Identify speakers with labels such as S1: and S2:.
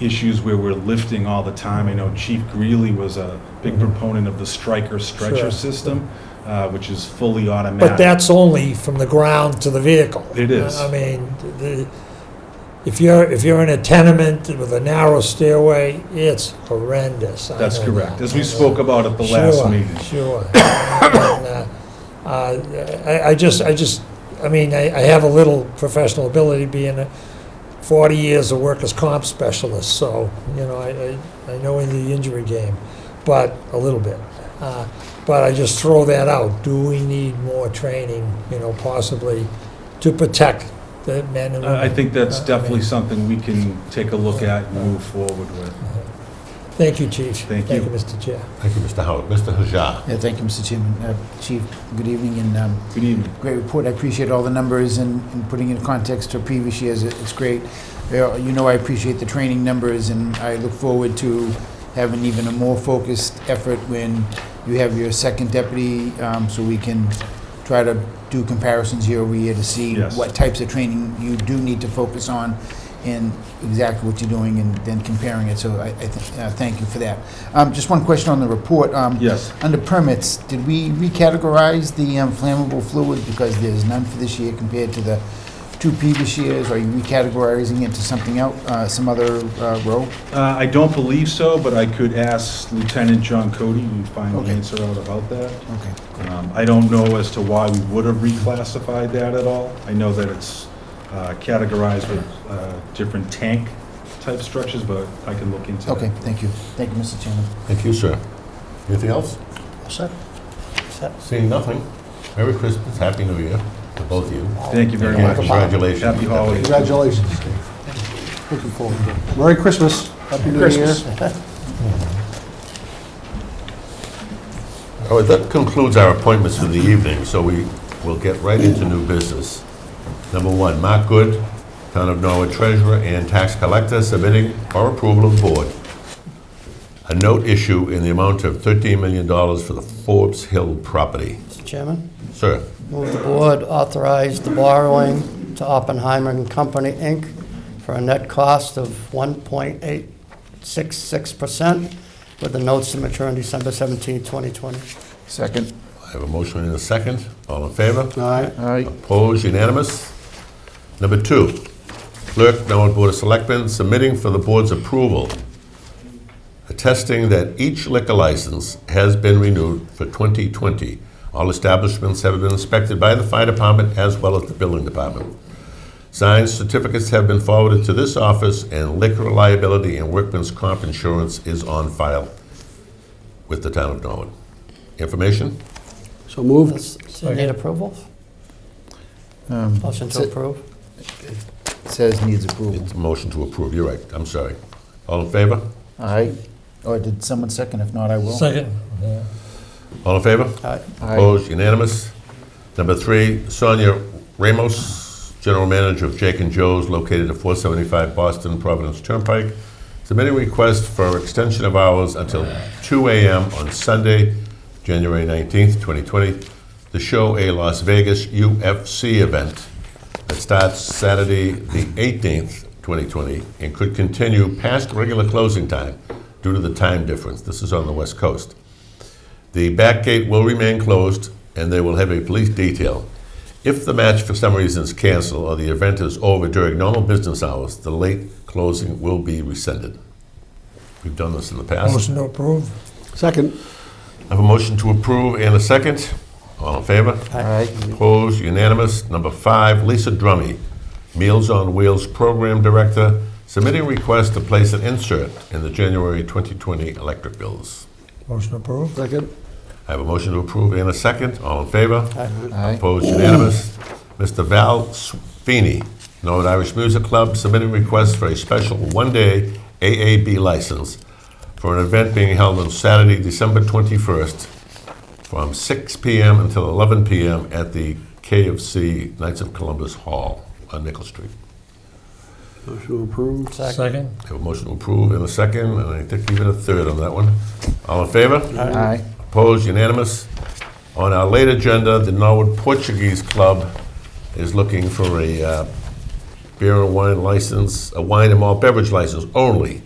S1: issues where we're lifting all the time. I know Chief Greeley was a big proponent of the striker stretcher
S2: Sure.
S1: system, uh, which is fully automatic.
S2: But that's only from the ground to the vehicle.
S1: It is.
S2: I mean, the, if you're, if you're in a tenement with a narrow stairway, it's horrendous. I
S1: That's
S2: know
S1: correct,
S2: that.
S1: as we spoke about at the last
S2: Sure,
S1: meeting.
S2: Sure. And, uh, uh, I, I just, I just, I mean, I, I have a little professional ability being a forty years a workers' comp specialist, so, you know, I, I, I know in the injury game, but a little bit. Uh, But I just throw that out. Do we need more training, you know, possibly to protect the men and women?
S1: I I think that's
S2: Uh, I
S1: definitely
S2: mean-
S1: something we can take a look at and move forward with.
S2: Thank you, Chief.
S1: Thank you.
S2: Thank you, Mr. Chair.
S3: Thank you, Mr. Howard. Mr. Hajar.
S4: Yeah, thank you, Mr. Chairman. Uh, Chief, good evening, and um,
S1: Good evening.
S4: great report. I appreciate all the numbers and and putting in context to previous years. It- It's great. Uh, You know I appreciate the training numbers, and I look forward to having even a more focused effort when you have your second deputy, um, so we can try to do comparisons year over year to see
S1: Yes.
S4: what types of training you do need to focus on and exactly what you're doing and then comparing it. So I I thi- uh, thank you for that. Um, Just one question on the report. Um,
S1: Yes.
S4: under permits, did we recategorize the um, flammable fluid because there's none for this year compared to the two previous years? Are you recategorizing it to something else, uh, some other uh, row?
S1: Uh, I don't believe so, but I could ask Lieutenant John Cody and find the
S4: Okay.
S1: answer out about that.
S4: Okay.
S1: Um, I don't know as to why we would have reclassified that at all. I know that it's uh, categorized with uh, different tank-type structures, but I can look into that.
S4: Okay, thank you. Thank you, Mr. Chairman.
S3: Thank you, sir. Anything else?
S4: Sir?
S3: Seeing nothing. Merry Christmas, Happy New Year to both of you.
S1: Thank you very
S3: And
S1: much.
S3: Congratulations.
S1: Happy holidays.
S5: Congratulations, Steve. Looking forward to it. Merry Christmas, Happy New Year.
S3: All right, that concludes our appointments for the evening, so we will get right into new business. Number one, Mark Good, Town of Norwood Treasurer and Tax Collector, submitting for approval of board a note issue in the amount of $13 million for the Forbes Hill property.
S6: Mr. Chairman,
S3: Sir,
S6: move the board authorize the borrowing to Oppenheimer and Company, Inc. for a net cost of 1.866% with the notes to mature on December 17, 2020.
S4: Second.
S3: I have a motion and a second. All in favor?
S6: All right.
S4: All right.
S3: Opposed, unanimous. Number two, clerk, Norwood Board of Selectmen, submitting for the board's approval, attesting that each liquor license has been renewed for 2020. All establishments have been inspected by the fire department as well as the building department. Signed certificates have been forwarded to this office, and liquor liability and workman's comp insurance is on file with the town of Norwood. Information?
S5: So moved.
S6: Does- does it Need approval?
S4: Um,
S6: Motion to
S4: Sit.
S6: approve?
S4: Says needs approval.
S3: It's a motion to approve, you're right, I'm sorry. All in favor?
S4: All right. Or Oh, did someone second? If not, I will.
S2: Second.
S3: All in favor?
S6: All right.
S4: Aye.
S3: Opposed, unanimous. Number three, Sonia Ramos, General Manager of Jake and Joe's, located at 475 Boston Providence Turnpike, submitting request for extension of hours until 2 AM on Sunday, January 19th, 2020, to show a Las Vegas UFC event that starts Saturday, the 18th, 2020, and could continue past regular closing time due to the time difference. This is on the West Coast. The back gate will remain closed, and they will have a police detail. If the match for some reason is canceled or the event is over during normal business hours, the late closing will be rescinded. We've done this in the past.
S2: Motion to approve.
S5: Second.
S3: I have a motion to approve and a second. All in favor?
S4: All right.
S3: Opposed, unanimous. Number five, Lisa Drummy, Meals on Wheels Program Director, submitting request to place an insert in the January 2020 electric bills.
S2: Motion to approve.
S5: Second.
S3: I have a motion to approve and a second. All in favor?
S4: All right.
S3: Opposed, unanimous. Mr. Val Sweeney, Norwood Irish Music Club, submitting request for a special one-day AAB license for an event being held on Saturday, December 21st, from 6 PM until 11 PM at the KFC Knights of Columbus Hall on Nickel Street.
S5: Motion approved.
S6: Second.
S3: I Have a motion to approve and a second, and I think even a third on that one. All in favor?
S4: Aye.
S3: Opposed, unanimous. On our late agenda, the Norwood Portuguese Club is looking for a uh, beer and wine license, a wine and malt beverage license only